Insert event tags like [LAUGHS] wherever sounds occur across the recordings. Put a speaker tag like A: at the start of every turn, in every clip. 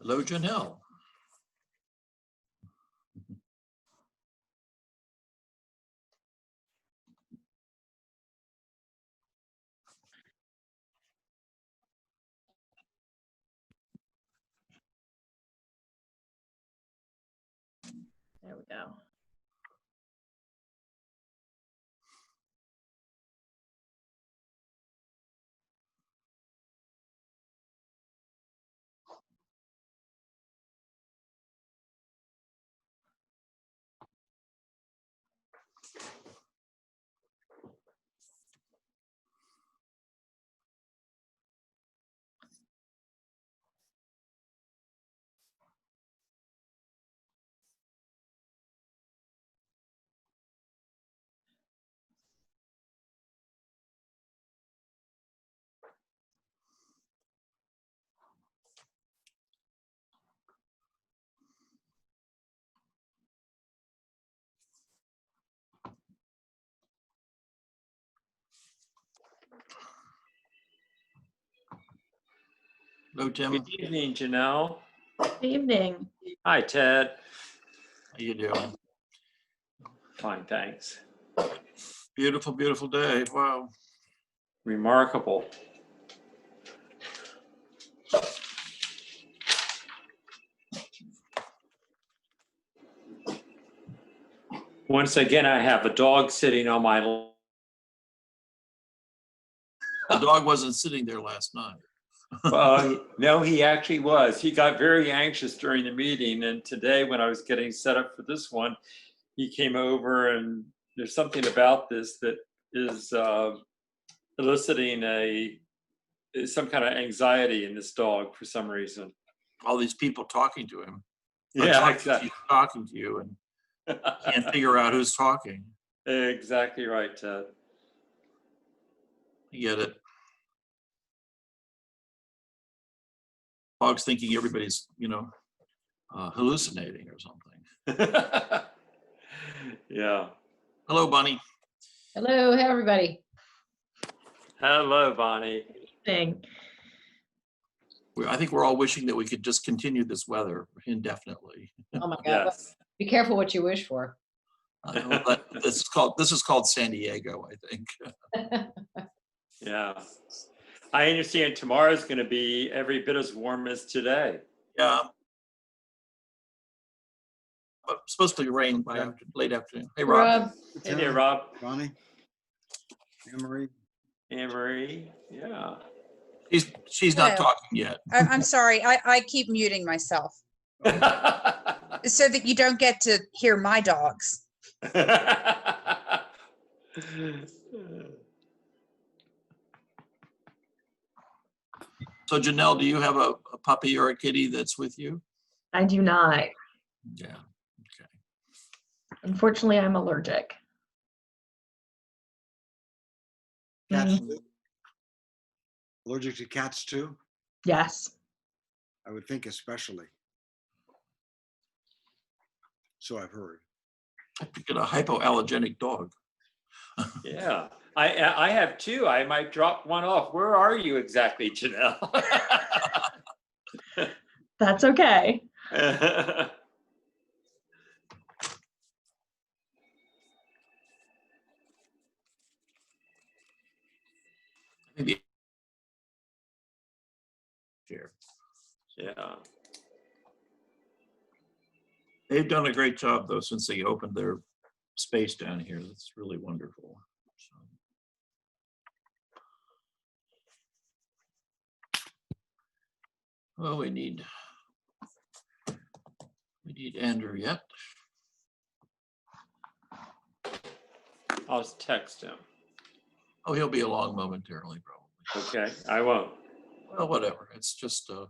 A: Hello, Janelle.
B: There we go.
A: Hello, Tim. How
C: Good evening, Janelle.
B: Evening.
C: Hi, Ted.
A: you doing?
C: Fine, thanks.
A: Beautiful, beautiful day. Wow.
C: Remarkable. Once again, I have a dog sitting on my, l-
A: The dog wasn't sitting there last night.
C: Uh, no, he actually was. He got very anxious during the meeting. And today, when I was getting set up for this one, he came over and there's something about this that is uh, eliciting a some kind of anxiety in this dog for some reason.
A: All these people talking to him. or
C: Yeah,
A: talking to
C: exactly.
A: you, Talking to you and can't figure out who's talking.
C: [LAUGHS] exactly right, Ted. [LAUGHS]
A: I Get it? Dog's thinking everybody's, you know, uh, hallucinating or something.
C: yeah.
A: Hello, Bunny.
B: Hello, hey, everybody.
C: Hello, Bonnie.
B: Thing.
A: We- I think we're all wishing that we could just continue this weather indefinitely.
B: Oh my God.
C: Yes.
B: Be careful what you wish for.
A: I don't know, but This is called, this is called San Diego, I think.
C: Yeah. I understand tomorrow's going to be every bit as warm as today.
A: Yeah. Um, But it's supposed to rain by after, late afternoon. Hey, Rob.
B: Rob,
C: Hey there, Rob.
D: Ronnie? Anne Marie?
C: Anne Marie, yeah. [LAUGHS]
A: She's, she's not
E: Hello.
A: talking yet.
E: I, I'm sorry, I, I keep muting myself so that you don't get to hear my dogs.
A: So Janelle, do you have a a puppy or a kitty that's with you?
B: I do not.
A: Yeah.
B: Unfortunately, I'm allergic.
D: Cats
B: Mhm.
D: too? Allergic to cats too?
B: Yes.
D: I would think especially. So I've heard.
A: I picked a hypoallergenic dog.
C: Yeah, I, I I have two. I might drop one off. Where are you exactly, Janelle?
B: That's okay.
A: Maybe- Here.
C: Yeah,
A: They've done a great job though, since they opened their space down here. That's really wonderful. So, Well, we need, we need Andrew yet.
C: I'll text him.
A: Oh, he'll be along momentarily, probably.
C: Okay, I won't.
A: Well, whatever. It's just, uh,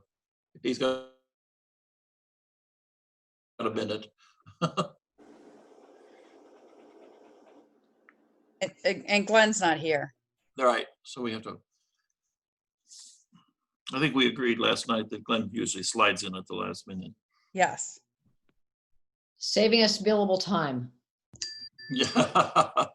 A: if he's got got a minute.
E: And- And and Glenn's not here.
A: All right, so we have to. I think we agreed last night that Glenn usually slides in at the last minute.
E: Yes.
F: Saving us billable time.
A: [LAUGHS] Yeah.